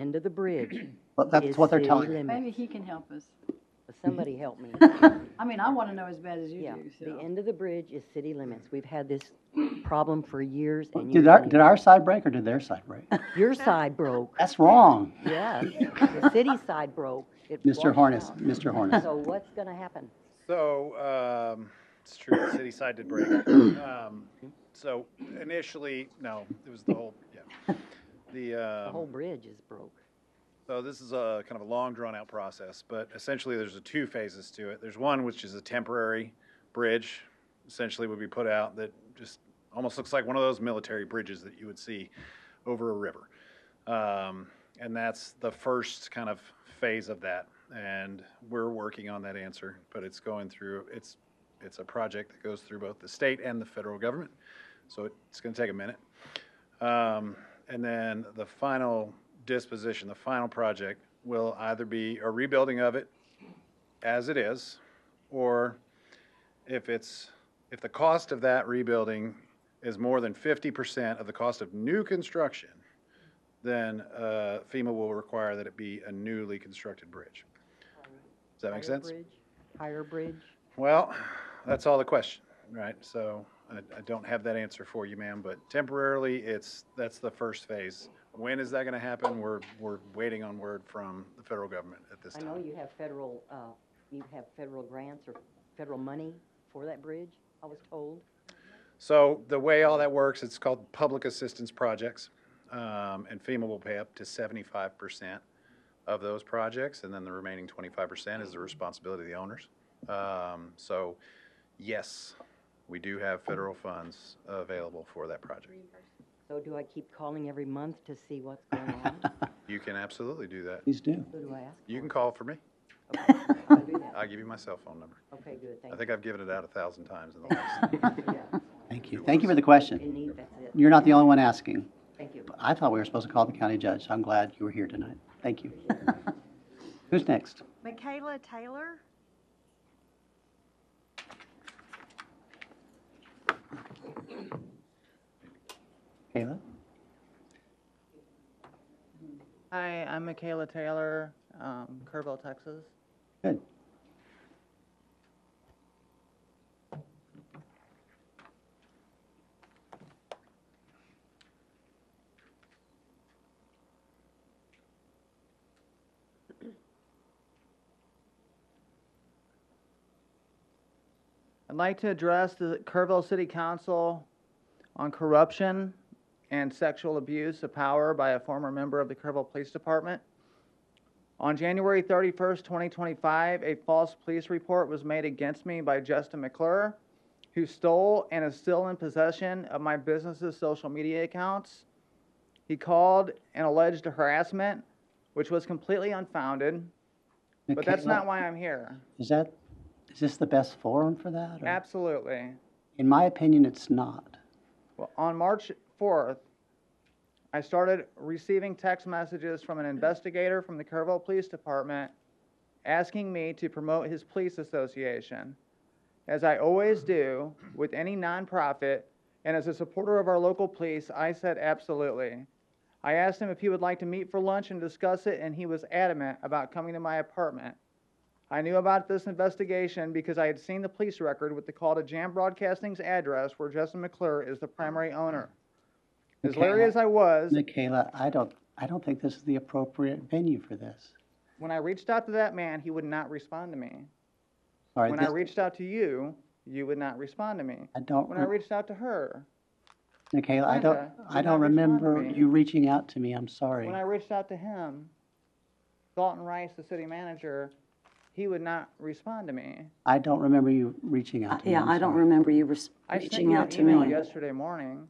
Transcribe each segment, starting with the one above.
under the bridge Well, that's is what they're city telling you. limits. Maybe he can help us. Somebody help me. I mean, I want to know as bad as you Yeah, do, the so. end of the bridge is city limits. We've had this problem for years and years. Did our, and did our side break or did their side break? years. Your side broke, That's wrong, yes. The city side broke. It Mr. washed Harness, out. Mr. Harness. So what's gonna happen? So, um, it's true, the city side did break. Um, So initially, no, it was the whole, yeah. The, The whole um, bridge is broke. so this is a kind of a long drawn-out process, but essentially there's a two phases to it. There's one which is a temporary bridge, essentially would be put out that just almost looks like one of those military bridges that you would see over a river. Um, and that's the first kind of phase of that. And we're working on that answer, but it's going through, it's, it's a project that goes through both the state and the federal government. So it's going to take a minute. Um, and then the final disposition, the final project will either be a rebuilding of it as it is, or if it's, if the cost of that rebuilding is more than fifty percent of the cost of new construction, then uh, FEMA will require that it be a newly constructed bridge. Does that make Higher sense? bridge? Higher bridge? Well, that's all the question, right? So I, I don't have that answer for you, ma'am, but temporarily, it's, that's the first phase. When is that gonna happen? We're, we're waiting on word from the federal government at this I know time. you have federal, uh, you have federal grants or federal money for that bridge, I was told. So the way all that works, it's called public assistance projects. Um, and FEMA will pay up to seventy-five percent of those projects, and then the remaining twenty-five percent is the responsibility of the owners. Um, so, yes, we do have federal funds available for that project. So do I keep calling every month to see what's going on? You can absolutely do that. Please do. Who do I ask? You can call for me. I'll do that. I'll give you my cell phone number. Okay, good, I thank you. think I've given it out a thousand times in the last. Yeah, Thank you. Thank you for the question. In need, that's it, You're not the only one asking. thank you. I thought we were supposed to call the county judge. I'm glad you were here tonight. Thank you. Who's next? Michaela Taylor? Kayla? Hi, I'm Michaela Taylor, um, Kerrville, Texas. Good. I'd like to address the Kerrville City Council on corruption and sexual abuse of power by a former member of the Kerrville Police Department. On January 31st, 2025, a false police report was made against me by Justin McClure, who stole and is still in possession of my business's social media accounts. He called and alleged harassment, which was completely unfounded, but that's Michaela, not why I'm here. Is that, is this the best forum for that? or- Absolutely. In my opinion, it's not. Well, on March 4th, I started receiving text messages from an investigator from the Kerrville Police Department asking me to promote his police association. As I always do with any nonprofit, and as a supporter of our local police, I said absolutely. I asked him if he would like to meet for lunch and discuss it, and he was adamant about coming to my apartment. I knew about this investigation because I had seen the police record with the call to Jam Broadcasting's address where Justin McClure is the primary owner. As Okay. leery as I was, Michaela, I don't, I don't think this is the appropriate venue for this. when I reached out to that man, he would not respond to me. All right, When I this- reached out to you, you would not respond to me. I don't, When I re- reached out to her, Michaela, I don't, Brenda, I did don't not respond to remember me. you reaching out to me. I'm sorry. when I reached out to him, Dalton Rice, the city manager, he would not respond to me. I don't remember you reaching out to me. Yeah, I'm I don't sorry. remember you res- I sent reaching you an out to email me. Yesterday morning,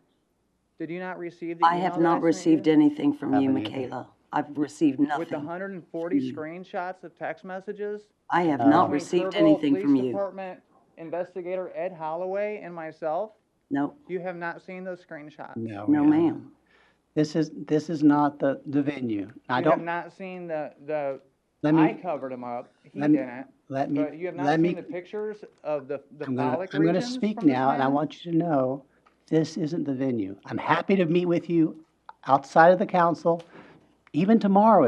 did you not receive the I email have that not sent received you? anything from you, Haven't either. Michaela. I've received With the nothing. hundred and forty screenshots of text messages? I have Uh, not between received Kerrville anything Police from you. Department investigator Ed Holloway and myself, No, you have not seen those screenshots. No, no, Oh, yeah. ma'am. This is, this is not the, the venue. I You have don't, not seen the, the, let I me, covered him up, he let me- didn't. let me, But you have not let seen me. the pictures of the, the I'm gonna, phallic regions I'm gonna speak from this now and I man? want you to know, this isn't the venue. I'm happy to meet with you outside of the council, even tomorrow